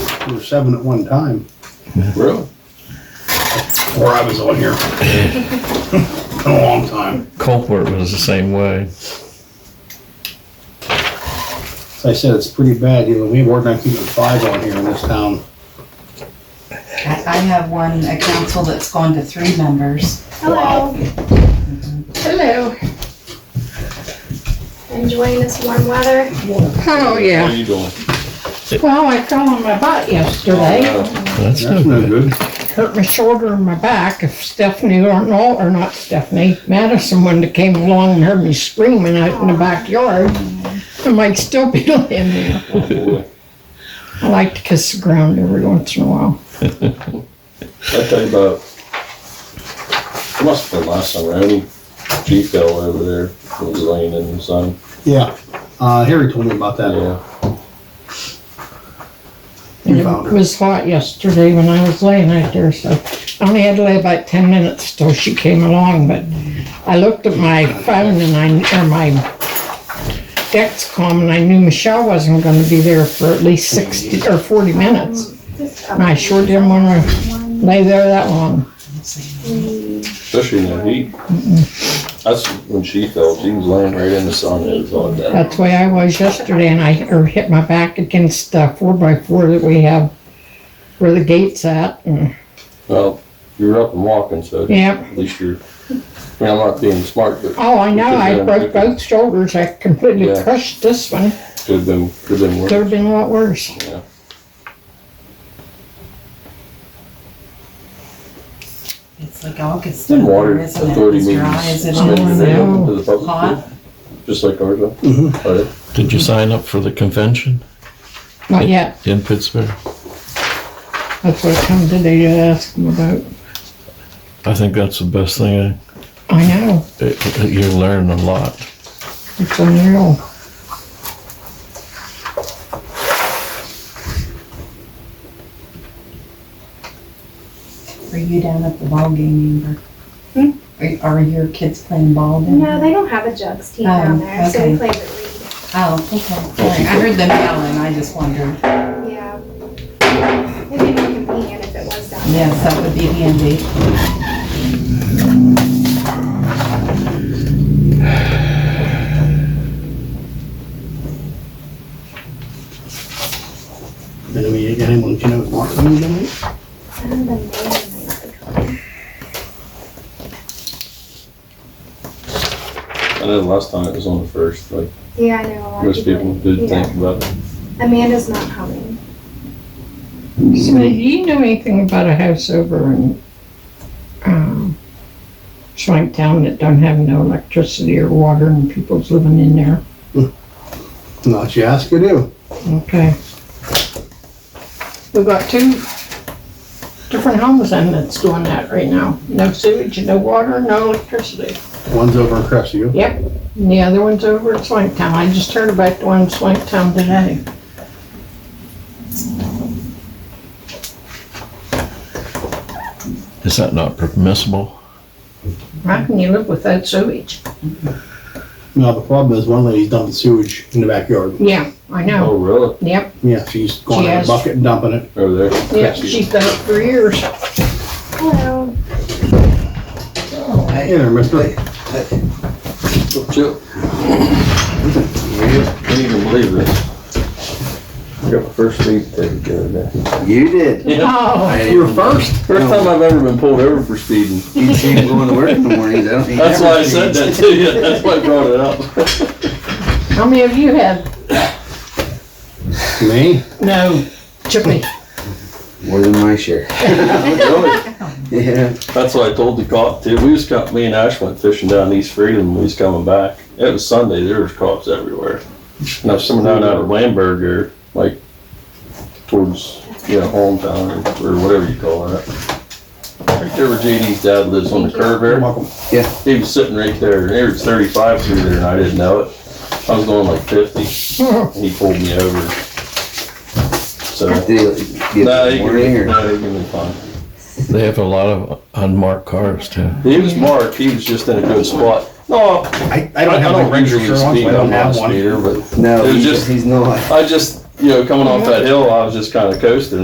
there were seven at one time, Really? or I was on here. Been a long time. Colport was the same way. As I said, it's pretty bad, you know, we were not keeping five on here in this town. I, I have one, a council that's gone to three members. Hello. Hello. Enjoying this warm weather. Oh, How yeah. you doing? Well, I fell on my butt yesterday, That's no That's no good. good. hurt my shoulder and my back. If Stephanie or no, or not Stephanie, Madison, when they came along and heard me screaming out in the backyard, I might still be laying there. Oh, boy. I like to kiss the ground every once in a while. I tell you about, it must have been last summer, any G fell over there, was laying in the sun. Yeah, uh, Harry told me about that. Yeah, And You found it her. was hot yesterday when I was laying out there, so I only had to lay about ten minutes till she came along, but I looked at my phone and I, or my Dexcom, and I knew Michelle wasn't gonna be there for at least sixty or forty minutes. And I sure didn't wanna lay there that long. especially in the heat. That's when she fell, she was laying right in the sun, it was all that. That's the way I was yesterday, and I, or hit my back against the four by four that we have, where the gate's at, and, Well, you were up and walking, so yeah. at least you're, I mean, I'm not being smart, but Oh, I know, I Because, uh, broke both shoulders, I completely Yeah. crushed this one, could have been, could have been worse. could've been a lot worse. Yeah. It's like August. Then water isn't it? It's authority dry, meetings is it spend the day Oh, open to the public, hot? just like ours. huh? Mhm. But Did you sign up for the convention Not yet, in Pittsburgh? that's what I come today to ask them about. I think that's the best thing. I know, I- it- it- You learn a lot. it's unreal. Were you down at the ball game, Amber? Are, are your kids playing ball down Hmm? No, there? they don't have a jugs team down Oh, there, so okay. we play with Oh, okay. All right. I heard them yelling, I just wondered. Reed. Yeah. Maybe we can be in if it was down there. Yes, that would be handy. Then we got anyone, you know, Mark, you know, I don't know, the name might be coming. I know the last time it was on the first, like, Yeah, I know a lot of most people did think about it. Amanda's not coming. So do you know anything about a house over in, um, Swanktown that don't have no electricity or water and people's living in there? not you ask, you do. Okay. We've got two different homes then that's doing that right now, no sewage, no water, no electricity. One's over in Crestview. Yep, and the other one's over at Swanktown. I just heard about the one in Swanktown today. Is that not permissible? How can you live without sewage? Now, the problem is one lady's dumping sewage in the backyard. Yeah, I know. Oh, really? Yep, Yeah, she's going She in a has- bucket and dumping it. Over there? yep, she's done it for years. Hello. Hey there, mister. Chill. Can't even believe this. I got my first speeding ticket the other day. You did. Oh, I- You were first. First time I've ever been pulled over for speeding. You can't go into work in the mornings. I don't think That's why I said that to you, that's why I brought it up. how many of you had? Me? No, Chippy. More than my share. Really? Yeah. That's what I told the cop too, we was caught, me and Ash went fishing down East Freedom, when we was coming back. It was Sunday, there was cops everywhere. Now, if someone down out of Lamberg or like towards, you know, hometown or or whatever you call it. Right there where JD's dad lives on the curve there. welcome. He was sitting right there, and there was thirty-five through there, and I didn't know it. I was going like fifty, and he pulled me over. So, Did you get no, the he can, morning or- no, he can be fine. They have a lot of unmarked cars too. He was marked, he was just in a good spot. No, I, I I don't I have a don't ranger usually shirt on, speed, so I I'm don't not a have one. speeder, but No, It was he's, just- he's not. I just, you know, coming off that hill, I was just kinda coasting,